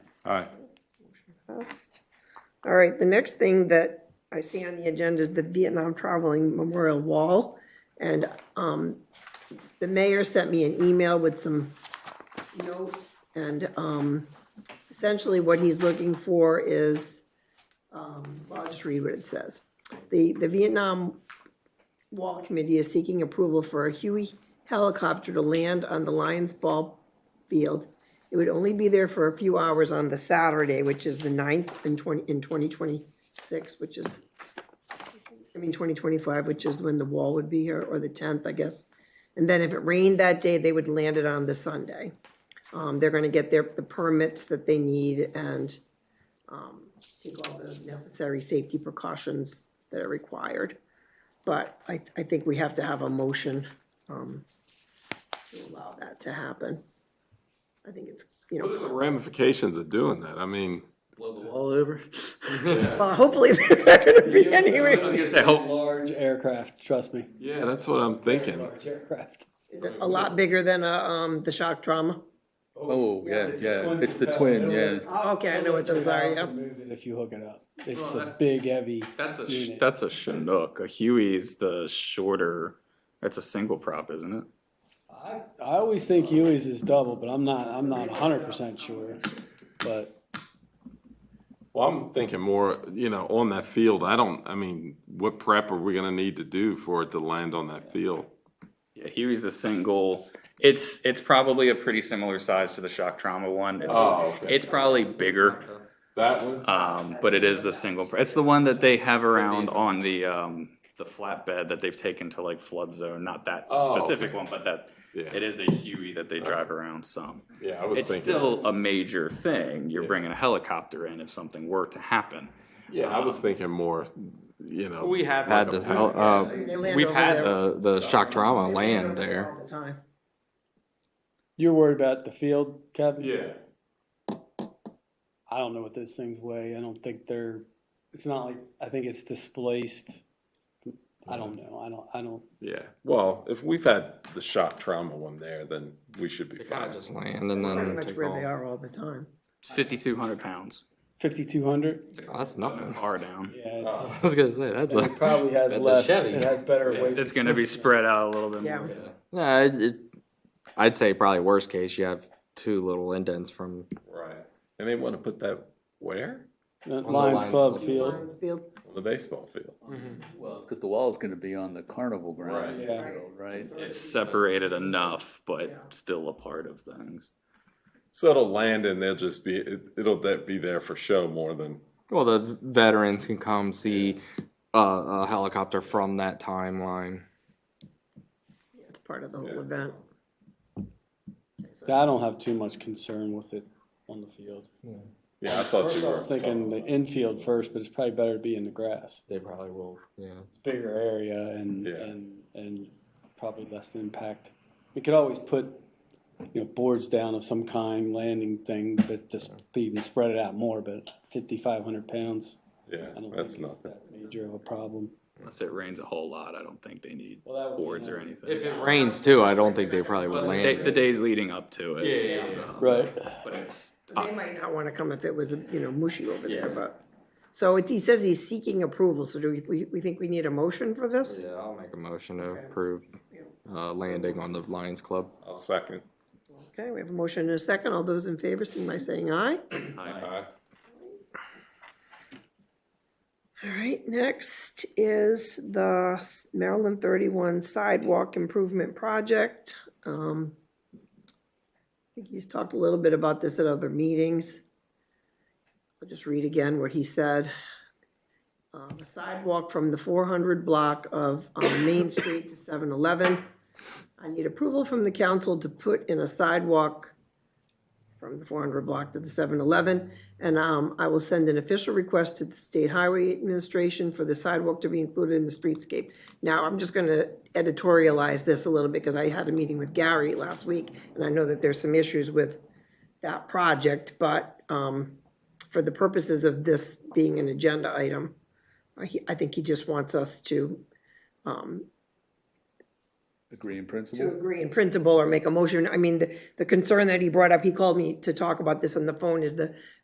Aye. Passed. All right, the next thing that I see on the agenda is the Vietnam Traveling Memorial Wall. And um, the mayor sent me an email with some notes. And um, essentially what he's looking for is, um, well, I'll just read what it says. The, the Vietnam Wall Committee is seeking approval for a Huey helicopter to land on the Lions Ball field. It would only be there for a few hours on the Saturday, which is the 9th in twenty, in twenty twenty-six, which is, I mean, twenty twenty-five, which is when the wall would be here, or the tenth, I guess. And then if it rained that day, they would land it on the Sunday. Um, they're gonna get their, the permits that they need and, um, take all the necessary safety precautions that are required. But I, I think we have to have a motion, um, to allow that to happen. I think it's, you know. What are the ramifications of doing that? I mean, Blow the wall over. Well, hopefully they're not gonna be anywhere. gonna say, hope- Large aircraft, trust me. yeah, that's what I'm thinking. Large aircraft. Is it a lot bigger than, uh, um, the shock trauma? Oh, yeah, it's yeah, twin it's the propelled twin, middle. yeah. Oh, okay, I know what those are, You yeah. can also move it If you hook it up, it's Oh, a that- big, heavy. That's a, unit. That's a Chinook. A Huey's the shorter. That's a single prop, isn't it? I, I always think Huey's is double, but I'm not, I'm not hundred percent sure. But Well, I'm thinking more, you know, on that field. I don't, I mean, what prep are we gonna need to do for it to land on that field? Yeah, Huey's a single. It's it's probably a pretty similar size to the shock trauma one. It's Oh, okay. it's probably bigger. That one? Um, but it is the single. pr- It's the one that they have around on the um the flatbed that they've taken to like flood zone. Not that Oh, specific okay. one, but that Yeah. it is a Huey that they drive around some. Yeah, I was It's thinking, still a major thing. You're Yeah. bringing a helicopter in if something were to happen. yeah, I was thinking more, you know. We have Had like a the, hel- uh, They land We've over had there. the, the shock trauma They land over there. All the time. you're worried about the field, Kevin? Yeah, I don't know what those things weigh. I don't think they're, it's not like, I think it's displaced. I don't know. I don't, I don't, yeah. Well, if we've had the shock trauma one there, then we should be Kind fine. of just land and Pretty then much take where they off. are all the time. Fifty-two hundred pounds. fifty-two hundred? Oh, That's An nothing. R down. Yeah, it's. I was gonna say, that's And It a, probably has That's a less, Chevy. it has better It's, weight. it's gonna be spread out a little bit Yeah. more. yeah, it, it, I'd say probably worst case, you have two little indents from, Right. And they wanna put that where? Uh, the Lions Lions Club Club. Field, Lions Field, On the baseball field. Mm-hmm. Mm-hmm. Well, it's because the wall's gonna be on the carnival ground, Right. in the Yeah. middle, right? It's separated enough, Yeah. but still a part of things. So it'll land and they'll just be, it- it'll that be there for show more than, well, the veterans can come see a, a helicopter from that timeline. it's part of the whole Yeah. event. I don't have too much concern with it on the field. yeah, I thought you I were. was thinking the infield first, but it's probably better to be in the grass. They probably will, yeah. Bigger area and, Yeah. and, and probably less impact. We could always put, you know, boards down of some kind, landing thing, but just even spread it out more, but fifty-five hundred pounds, Yeah, I don't think that's it's nothing. that major of a problem. Unless it rains a whole lot, I don't think they need Well, that would be boards or nice. anything. Rains too, I don't think they probably would Well, land they- it. The days leading up to it. Right. But it's, They might not wanna come if it was, you know, mushy over there, but. So it's, he says he's seeking approval, so do we, we, we think we need a motion for this? Yeah, I'll make a motion to approve, uh, landing on the Lions Club. I'll second. Okay, we have a motion and a second. All those in favor, seem by saying aye. Aye. All right, next is the Maryland thirty-one sidewalk improvement project. Um, I think he's talked a little bit about this at other meetings. I'll just read again what he said. Um, a sidewalk from the four hundred block of, um, Main Street to seven eleven. I need approval from the council to put in a sidewalk from the 400 block to the 7-Eleven. And um, I will send an official request to the State Highway Administration for the sidewalk to be included in the streetscape. Now, I'm just going to editorialize this a little bit because I had a meeting with Gary last week, and I know that there's some issues with that project, but um, for the purposes of this being an agenda item, I he- I think he just wants us to um, Agree in to principle? agree in principle or make a motion. I mean, the, the concern that he brought up, he called me to talk about this on the phone, is the